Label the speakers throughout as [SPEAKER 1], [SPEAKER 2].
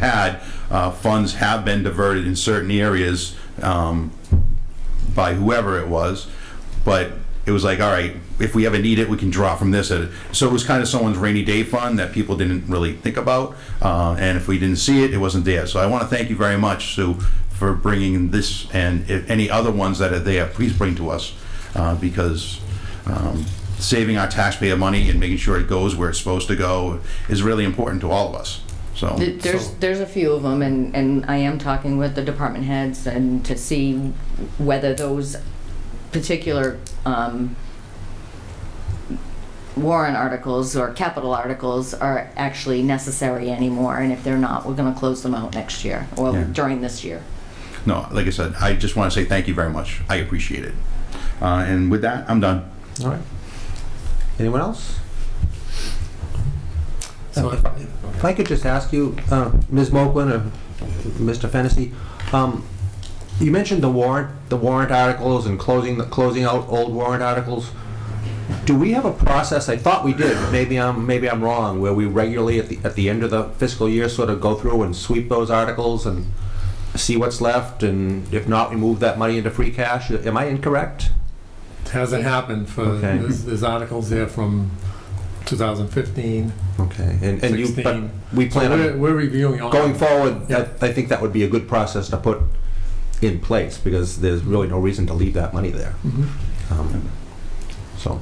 [SPEAKER 1] had, uh, funds have been diverted in certain areas um, by whoever it was, but it was like, all right, if we ever need it, we can draw from this. Uh, So it was kind of someone's rainy day fund that people didn't really think about, uh, and if we didn't see it, it wasn't there. So I want to thank you very much, Sue, for bringing this and if any other ones that are there, please bring to us, uh, because um, saving our taxpayer money and making sure it goes where it's supposed to go is really important to all of us, so.
[SPEAKER 2] Th- There's, there's a few of them, and, and I am talking with the department heads and to see whether those particular, um, warrant articles or capital articles are actually necessary anymore, and if they're not, we're gonna close them out next year,
[SPEAKER 1] Yeah.
[SPEAKER 2] or during this year.
[SPEAKER 1] No, like I said, I just want to say thank you very much. I appreciate it. Uh, and with that, I'm done.
[SPEAKER 3] All right. Anyone else?
[SPEAKER 4] So
[SPEAKER 3] Uh, If I could just ask you, uh, Ms. Moquin or Mr. Fennessy, um, you mentioned the warrant, the warrant articles and closing, the closing out old warrant articles. Do we have a process, I thought we did, but maybe I'm, maybe I'm wrong, where we regularly at the, at the end of the fiscal year sort of go through and sweep those articles and see what's left, and if not, we move that money into free cash? Am I incorrect?
[SPEAKER 4] it hasn't happened for,
[SPEAKER 3] Okay.
[SPEAKER 4] there's, there's articles there from 2015,
[SPEAKER 3] Okay. And, and you, but
[SPEAKER 4] 16.
[SPEAKER 3] we
[SPEAKER 4] So
[SPEAKER 3] plan on.
[SPEAKER 4] we're, we're reviewing all.
[SPEAKER 3] Going forward, I
[SPEAKER 4] Yeah.
[SPEAKER 3] I think that would be a good process to put in place, because there's really no reason to leave that money there.
[SPEAKER 4] Mhm.
[SPEAKER 3] Um, So,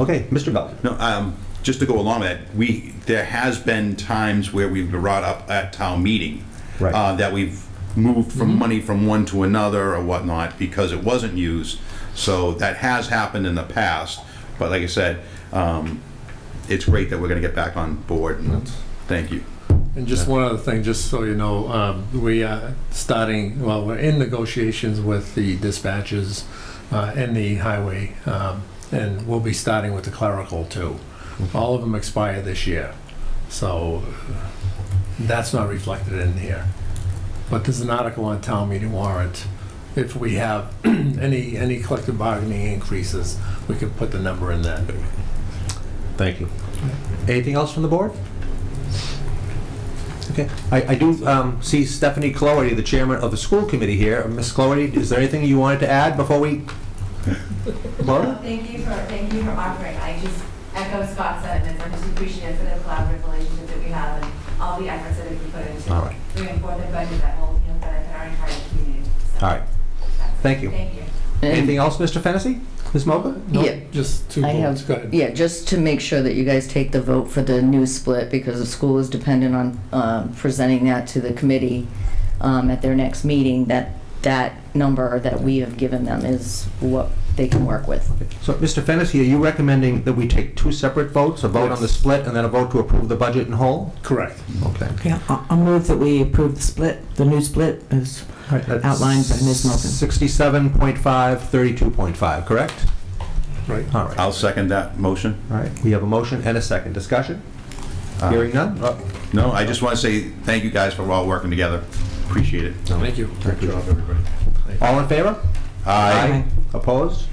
[SPEAKER 3] okay, Mr. Belton.
[SPEAKER 1] No, um, just to go along with that, we there has been times where we've brought up at town meeting
[SPEAKER 3] Right.
[SPEAKER 1] uh, that we've moved from money from one to another or whatnot because it wasn't used. So that has happened in the past. But like I said, um, it's great that we're going to get back on board. And thank you.
[SPEAKER 4] And just one other thing, just so you know, um, we are starting, well, we're in negotiations with the dispatches uh, and the highway, um, and we'll be starting with the clerical too.
[SPEAKER 3] Mm-hmm.
[SPEAKER 4] All of them expire this year, so uh, that's not reflected in here. But there's an article on town meeting warrant. If we have any, any collective bargaining increases, we could put the number in that.
[SPEAKER 3] Thank you. Anything else from the board? Okay, I, I do um, see Stephanie Cloherty, the chairman of the school committee here. Ms. Cloherty, is there anything you wanted to add before we?
[SPEAKER 5] Well,
[SPEAKER 3] Laura?
[SPEAKER 5] Thank you for, thank you for offering. I just echo Scott's sentiments. I'm just appreciative for the collaborative relationship that we have and all the efforts that have been put into
[SPEAKER 3] All right.
[SPEAKER 5] bringing forth a budget that will benefit our entire community. So,
[SPEAKER 3] All right,
[SPEAKER 5] that's-
[SPEAKER 3] thank you.
[SPEAKER 5] Thank you.
[SPEAKER 3] Anything else, Mr. Fennessy? Ms. Moga?
[SPEAKER 4] No,
[SPEAKER 2] Yeah.
[SPEAKER 4] Just two
[SPEAKER 2] I
[SPEAKER 4] votes,
[SPEAKER 2] have,
[SPEAKER 4] go ahead.
[SPEAKER 2] yeah, just to make sure that you guys take the vote for the new split, because the school is dependent on uh, presenting that to the committee um, at their next meeting, that that number that we have given them is what they can work with.
[SPEAKER 3] So, Mr. Fennessy, are you recommending that we take two separate votes, a vote on the
[SPEAKER 4] Yes.
[SPEAKER 3] split and then a vote to approve the budget in whole?
[SPEAKER 4] Correct.
[SPEAKER 3] Okay.
[SPEAKER 6] Yeah, I'll I'll move that we approve the split, the new split is, Outlined by Ms. Moulton.
[SPEAKER 3] Sixty-seven point five, thirty-two point five, correct?
[SPEAKER 4] Right.
[SPEAKER 3] All right, all
[SPEAKER 1] I'll second that motion.
[SPEAKER 3] right. We have a motion and a second. Discussion?
[SPEAKER 1] Uh,
[SPEAKER 3] Hearing none? Oh,
[SPEAKER 1] No, I just want to say thank you guys for all working together. Appreciate it.
[SPEAKER 3] no.
[SPEAKER 4] Thank you.
[SPEAKER 3] Thank you.
[SPEAKER 4] everybody.
[SPEAKER 3] All in favor?
[SPEAKER 1] Aye.
[SPEAKER 6] Aye.
[SPEAKER 3] Opposed?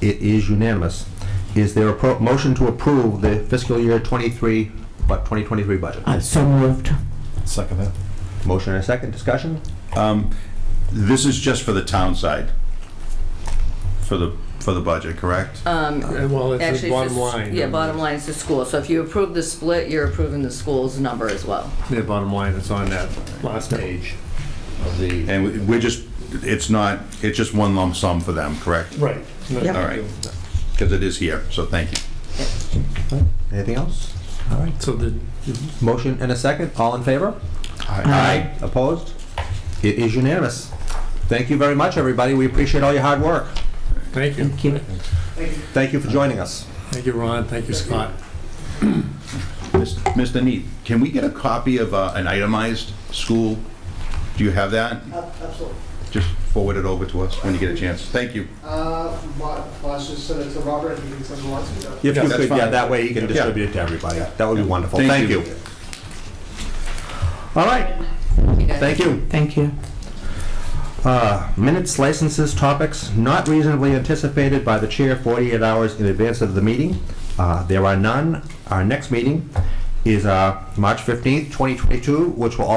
[SPEAKER 3] It is unanimous. Is there a pro- motion to approve the fiscal year twenty-three, what, twenty twenty-three budget?
[SPEAKER 6] uh, so moved.
[SPEAKER 4] Second that.
[SPEAKER 3] Motion and a second. Discussion?
[SPEAKER 1] Um, This is just for the town side, for the, for the budget, correct?
[SPEAKER 4] Yeah, Well,
[SPEAKER 2] Um, Actually,
[SPEAKER 4] it's the
[SPEAKER 2] it's
[SPEAKER 4] bottom
[SPEAKER 2] the s-
[SPEAKER 4] line.
[SPEAKER 2] Yeah, bottom line is the school. So if you approve the split, you're approving the school's number as well.
[SPEAKER 4] Yeah, bottom line, it's on that last page of the.
[SPEAKER 1] And we- we're just, it's not, it's just one lump sum for them, correct?
[SPEAKER 4] Right.
[SPEAKER 6] Yep.
[SPEAKER 1] All right, because it is here, so thank you.
[SPEAKER 3] Anything else? All right.
[SPEAKER 4] So the,
[SPEAKER 3] Motion and a second. All in favor?
[SPEAKER 6] Aye.
[SPEAKER 3] Opposed? It is unanimous. Thank you very much, everybody. We appreciate all your hard work.
[SPEAKER 4] thank you.
[SPEAKER 6] Thank you.
[SPEAKER 3] Thank you for joining us.
[SPEAKER 4] Thank you, Ron. Thank you, Scott.
[SPEAKER 1] Mis- Mr. Neath, can we get a copy of uh, an itemized school? Do you have that?
[SPEAKER 7] Absolutely.
[SPEAKER 1] Just forward it over to us when you get a chance. Thank you.
[SPEAKER 7] Uh, Bob, Boss just sent it to uh, Robert, if he thinks someone wants to go.
[SPEAKER 3] If
[SPEAKER 1] Yeah,
[SPEAKER 3] you
[SPEAKER 1] that's
[SPEAKER 3] could, yeah,
[SPEAKER 1] fine.
[SPEAKER 3] that way you can
[SPEAKER 1] Yeah.
[SPEAKER 3] distribute it to everybody. That would be wonderful. Thank you. All right, thank you.
[SPEAKER 6] Thank you.
[SPEAKER 3] Uh, Minutes, licenses, topics not reasonably anticipated by the chair 48 hours in advance of the meeting. Uh, There are none. Our next meeting is uh, March 15th, 2022, which will